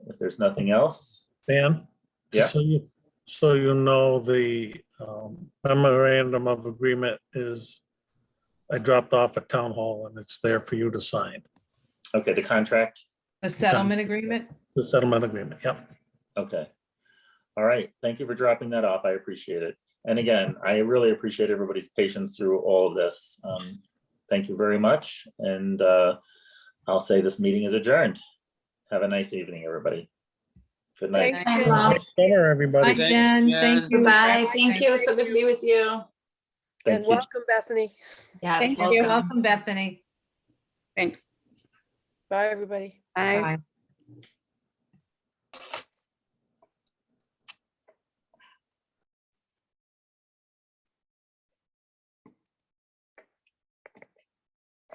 if there's nothing else. Dan? Yeah. So you, so you know, the um, memorandum of agreement is, I dropped off at town hall and it's there for you to sign. Okay, the contract. The settlement agreement? The settlement agreement, yep. Okay. All right. Thank you for dropping that off. I appreciate it. And again, I really appreciate everybody's patience through all of this. Um, Thank you very much. And uh, I'll say this meeting is adjourned. Have a nice evening, everybody. Good night. Thanks, Thanks, Jen. Mom. Dinner, everybody. Bye, Jen. Thank you. Goodbye. Thank you. So good to be with you. And Thank you. welcome, Bethany. Yes. Thank you. welcome. Welcome, Bethany. Thanks. Bye, everybody. Bye. Bye.